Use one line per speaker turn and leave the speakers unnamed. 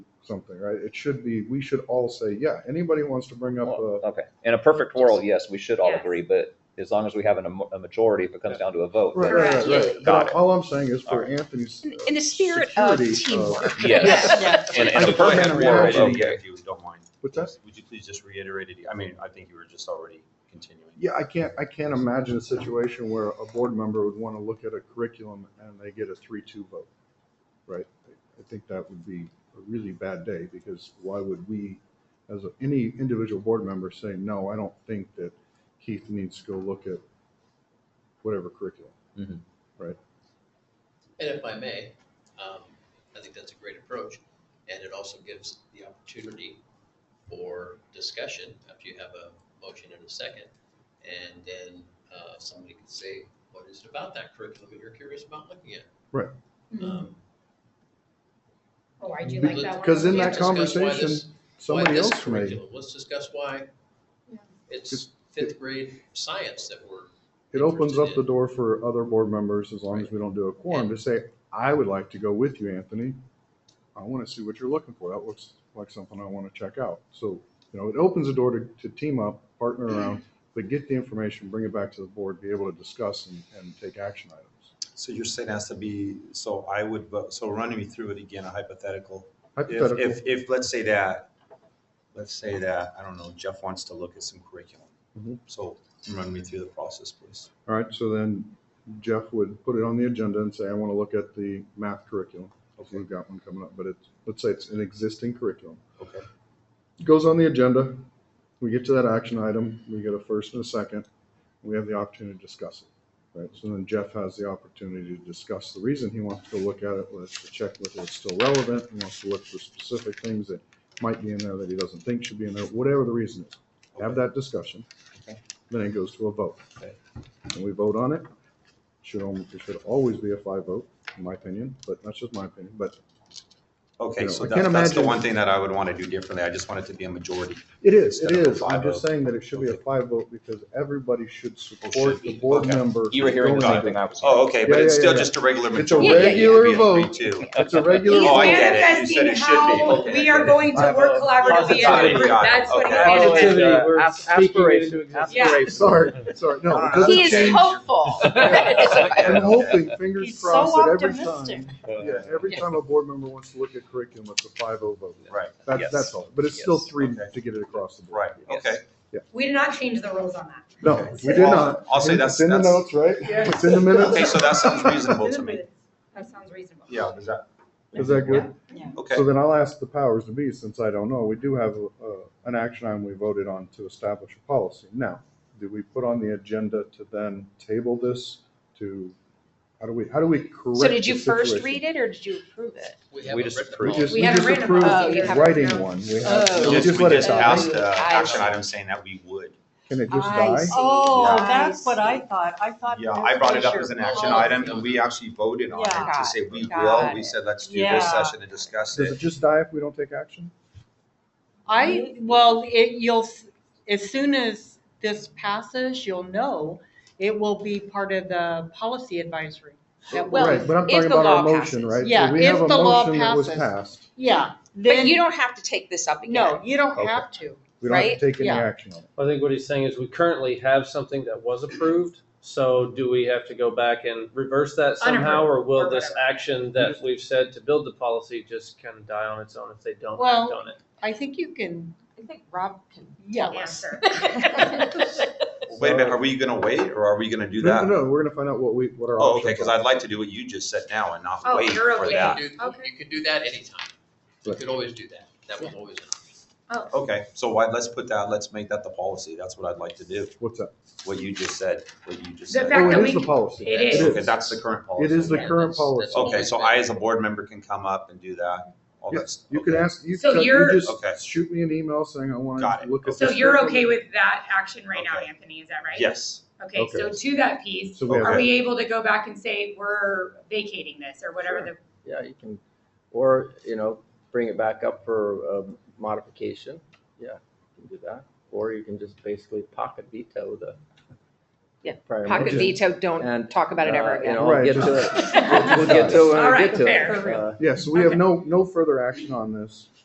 something, right? It should be, we should all say, yeah, anybody wants to bring up a,
Okay, in a perfect world, yes, we should all
Yes.
agree, but as long as we have an emo- a majority, if it comes down to a vote.
right,
then-
right,
Correct.
right, right.
Got it.
All I'm saying is for Anthony's. uh,
In the spirit of
security uh,
teamwork.
Yes. In in a
I- I had
perfect
a
world,
reaction.
okay.
If you don't mind.
What's that?
Would you please just reiterate it? I mean, I think you were just already continuing.
Yeah, I can't, I can't imagine a situation where a board member would want to look at a curriculum and they get a three-two vote, right? I think that would be a really bad day because why would we, as a- any individual board member, say, no, I don't think that Keith needs to go look at whatever curriculum.
And if I may, um, I think that's a great approach, and it also gives the opportunity for discussion after you have a motion and a second. And then, uh, somebody can say, what is it about that curriculum that you're curious about looking at?
Right.
Um,
Oh, I do Mm-hmm. like that one.
Because in
we
that
discuss why this-
conversation,
why
somebody
this
else may,
curriculum? Let's discuss why
Yeah.
it's
Just-
fifth grade science that we're.
it opens up the
interested
door for other board members, as long as we don't do a quorum, to say, I would like to go with you, Anthony. I want to see what you're looking for. That looks like something I want to check out. So, you know, it opens the door to, to team up, partner around, but get the information, bring it back to the board, be able to discuss and, and take action items.
So you're saying it has to be, so I would, vote. so run me through it again, a hypothetical. If,
Hypothetical,
if, if, let's say that, let's say that, I don't know, Jeff wants to look at some curriculum.
Mhm.
So run me through the process, please.
all right, so then Jeff would put it on the agenda and say, I want to look at the math curriculum.
Okay.
We've got one coming up, but it's, let's say it's an existing curriculum.
Okay.
goes on the agenda. We get to that action item. We get a first and a second. We have the opportunity to discuss it, right? So then Jeff has the opportunity to discuss the reason he wants to look at it, wants to check whether it's still relevant. He wants to look for specific things that might be in there that he doesn't think should be in there, whatever the reason is. Have that discussion.
Okay.
Then it goes to a vote.
Okay.
And we vote on it. Should, al- it should always be a five vote, in my opinion, but that's just my opinion, but you
Okay,
know,
so
I
that,
can't
that's the
imagine-
one thing that I would want to do differently. I just want it to be a majority.
It is, it
Instead of a
is. I'm
five
just
vote.
saying that it should be a
Okay.
five vote because everybody should
Oh,
support
should be.
the board
Okay.
member.
You were hearing the
going
same
to-
thing I was. hearing.
Oh, okay, but
Yeah,
it's
yeah,
still
yeah.
just a regular
It's a
majority. It can't
regular
be a three,
vote.
two.
It's a
He's
regular
Oh, I
vote.
get it. You said
manifesting
it should be.
how
Okay,
we
I get
are
it.
going to work collaboratively as a
Positivity,
group.
got it.
That's what
Okay.
uh,
he is.
Positivity,
Positivity,
we're
ap-
speaking it
aspiration,
into existence.
Yeah.
aspiration.
Sorry, sorry, no. it doesn't
He is
change.
hopeful.
Oh.
I'm hoping, fingers
He's so
crossed, that every time,
optimistic.
yeah, every time a board member wants to look at curriculum, it's a five oh vote.
Right,
That's,
Yes.
that's all, but it's still
Yes.
three
Okay.
to get it across the board.
right, okay.
We did not change the rules on that.
No,
Okay.
we did
Well,
not.
I'll say
It's
that's-
in the
that's-
notes, right?
Yeah.
It's in the minutes.
Okay, so that sounds reasonable to me.
That sounds reasonable.
Yeah, is that,
Is that good?
okay.
So then I'll ask the powers to be, since I don't know, we do have uh, an action item we voted on to establish a policy. Now, do we put on the agenda to then table this to, how do we, how do we correct?
So did you first read it or did you approve it?
We
We
haven't
just
read the
approved
We
policy.
just,
We
we
haven't
just
written a
approved
policy.
Oh, You haven't
writing
written a-
one. We have,
Oh.
we
We
just
just, we
let it
just
die.
passed the action item saying that we would.
Can it just
I
die?
see.
Oh,
Yeah.
that's what I thought. I thought.
Yeah,
there
I brought
was
it up
your
as an action
policy.
item and we actually voted on
Yeah.
it
Got
to say we
got
will. We
it.
said, let's do
Yeah.
this session and discuss
Does it
it.
just die if we don't take action?
I, well, it, you'll, s- as soon as this passes, you'll know, it will be part of the policy advisory. that will-
Well,
Right, but I'm
if
talking
the
about our
law
motion,
passes.
right? So
Yeah,
we have
if
a
the law
motion that was
passes.
passed.
Yeah,
But you
then,
don't have to take this up again.
no, you don't
Okay.
have to.
We don't have
Right?
to take any
Yeah.
action on it.
I think what he's saying is we currently have something that was approved, so do we have to go back and reverse that somehow? Or will this action that we've said to build the policy just kind of die on its own if they don't act
Well-
on it?
I think you can
I think Rob can
yell us.
Answer.
Wait a
uh,
minute, are we gonna wait or are we gonna do
No,
that?
no, no, we're gonna find out what we, what our
Oh,
options are.
okay, because I'd like to do what you just said now and not
Oh,
wait
you're
for
okay.
You
that.
could do-
Okay.
You could do that anytime. You
Right.
could always do that. That was always an option.
Okay, so why, let's put that, let's make that the policy. That's what I'd like to do,
What's that?
what you just said, what you just
The
said.
fact
Oh,
that
it
we
is the policy.
It is.
Okay, that's the current
It
policy.
is the
Yeah,
current
that's-
policy.
that's all
Okay,
we've
so
been-
I as a board member can come up and do that, all that stuff.
You can ask, you
So
can, you
you're-
Okay.
just shoot me an email saying I
Got
wanna
it.
look at
So
this.
you're
curriculum.
okay with that action right now,
Okay.
Anthony, is that right?
Yes,
Okay, so
Okay.
to that piece,
So we have
are
Okay.
we able to go back and say, we're vacating this or whatever the,
Yeah, you can, or, you know, bring it back up for um, modification. Yeah, you can do that. Or you can just basically pocket veto the.
Yeah,
prior
Pocket
motion.
veto, don't
And,
talk about it ever
uh, you
again.
know, I'll
Right,
get
just-
to it. We'll get to it when
All
we
right,
get to
fair.
it. Uh,
Yeah, so we have
Okay.
no, no further action on this.